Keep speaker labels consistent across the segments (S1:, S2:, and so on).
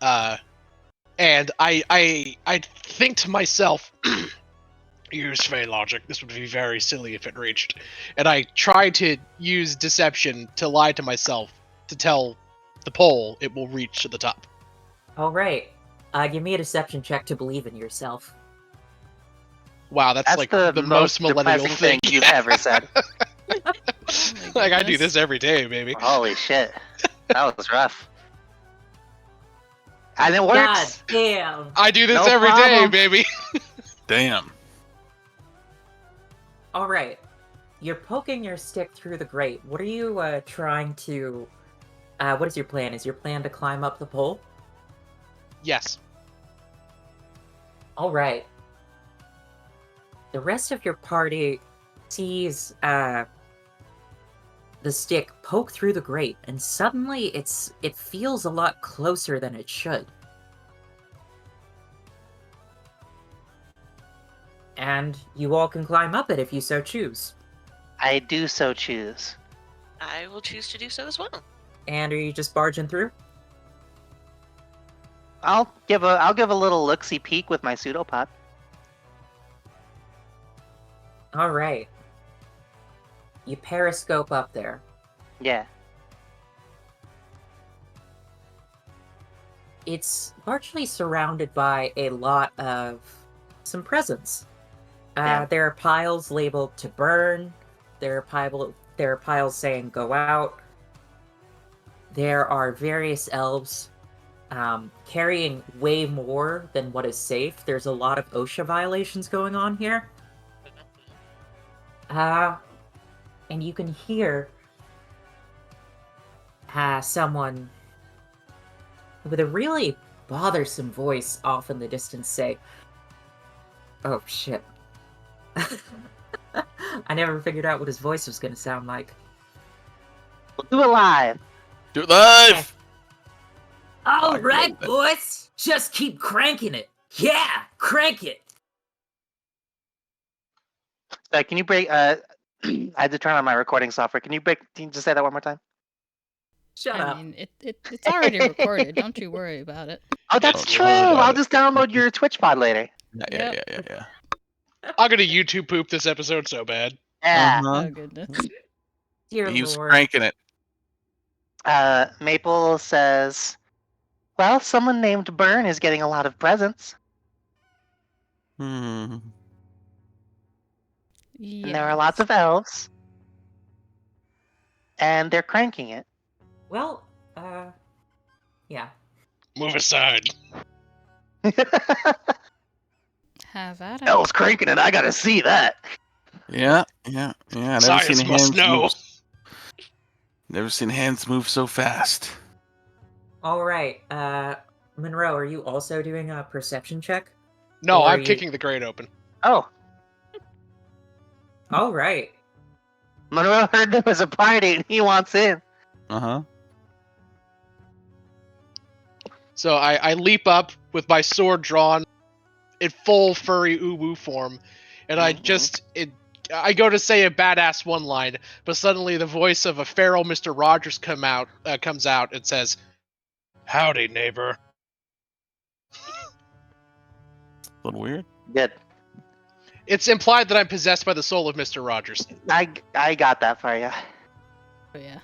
S1: Uh, and I, I, I think to myself, use Fey logic. This would be very silly if it reached. And I try to use deception to lie to myself to tell the pole it will reach to the top.
S2: All right. Uh, give me a deception check to believe in yourself.
S1: Wow, that's,
S3: That's
S1: like
S3: the,
S1: most, millennial
S3: depressing thing you've ever said.
S1: like I do this every day, baby.
S3: Holy shit, that was rough. And it
S2: God
S3: works.
S2: damn.
S1: I do this
S3: No
S1: every day,
S3: problem.
S1: baby.
S4: Damn.
S2: All right. You're poking your stick through the grate. What are you uh, trying to? Uh, what is your plan? Is your plan to climb up the pole?
S1: Yes.
S2: All right. The rest of your party sees uh, the stick poke through the grate, and suddenly it's it feels a lot closer than it should. And you all can climb up it if you so choose.
S3: I do so choose.
S5: I will choose to do so as well.
S2: And are you just barging through?
S3: I'll give a I'll give a little looksy peek with my pseudopod.
S2: All right. You periscope up there.
S3: Yeah.
S2: It's largely surrounded by a lot of some presents. Uh,
S3: Yeah.
S2: There are piles labeled to burn. There are pile, there are piles saying go out. There are various elves um, carrying way more than what is safe. There's a lot of OSHA violations going on here. Uh, and you can hear uh, someone with a really bothersome voice off in the distance say, Oh shit. I never figured out what his voice was going to sound like.
S3: Do it live.
S4: Do it live.
S2: All
S4: Fuck,
S2: right,
S4: man.
S2: boys, just keep cranking it. Yeah, crank it.
S3: Uh, can you break? Uh, I had to turn on my recording software. Can you break? Can you just say that one more time?
S2: Shut
S6: I
S2: up.
S6: mean, it, it, it's already recorded. Don't you worry about it.
S3: Oh, that's
S4: Oh,
S3: true.
S4: wow.
S3: I'll just download your Twitch pod later.
S4: Yeah, yeah, yeah,
S6: Yep.
S4: yeah, yeah.
S1: I'm gonna YouTube poop this episode so bad.
S3: Yeah.
S6: Oh goodness.
S2: Dear
S4: He was
S2: Lord.
S4: cranking it.
S3: Uh, Maple says, "Well, someone named Burn is getting a lot of presents,
S4: Hmm.
S6: Yeah.
S3: and there are lots of elves, and they're cranking it."
S2: Well, uh, yeah.
S1: Move aside.
S6: Have at it.
S3: elves cranking it. I gotta see that.
S4: Yeah, yeah, yeah. Never
S1: Science
S4: seen
S1: must
S4: hands
S1: know.
S4: Move. Never seen hands move so fast.
S2: All right. Uh, Monroe, are you also doing a perception check?
S1: No,
S2: Or
S1: I'm
S2: you-
S1: kicking the grate open.
S3: Oh,
S2: All right.
S3: Monroe heard there was a party, and he wants in.
S4: Uh huh.
S1: So I, I leap up with my sword drawn in full furry uwu form, and I
S3: Mhm.
S1: just it, I go to say a badass one line, but suddenly the voice of a feral Mr. Rogers come out uh, comes out and says, "Howdy, neighbor."
S4: A little weird.
S3: Good.
S1: It's implied that I'm possessed by the soul of Mr. Rogers.
S3: I I got that for you.
S6: Oh, yeah.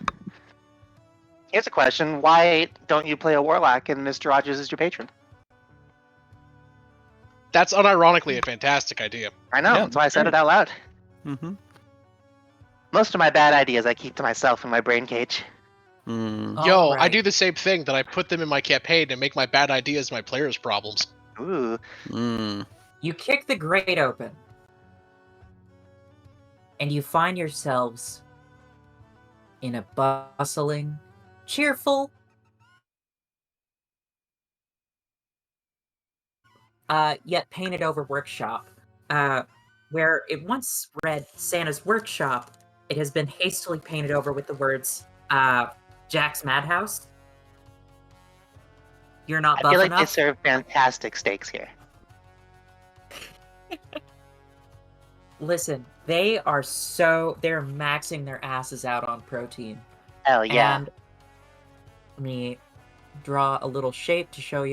S3: Here's a question: Why don't you play a warlock and Mr. Rogers is your patron?
S1: That's unironically a fantastic idea.
S3: I know.
S4: Yeah,
S3: that's why I said
S4: sure.
S3: it out loud.
S4: Mm-hmm.
S3: Most of my bad ideas I keep to myself in my brain cage.
S4: Mm.
S1: Yo,
S2: All
S1: I
S2: right.
S1: do the same thing that I put them in my campaign and make my bad ideas my players' problems.
S3: Ooh.
S4: Mm.
S2: You kick the grate open. And you find yourselves in a bustling, cheerful, uh, yet painted over workshop, uh, where it once read Santa's Workshop. It has been hastily painted over with the words uh, Jack's Madhouse. You're not
S3: I
S2: buff
S3: feel like
S2: enough.
S3: they serve fantastic steaks here.
S2: Listen, they are so they're maxing their asses out on protein.
S3: Hell yeah.
S2: And let me draw a little shape to show you.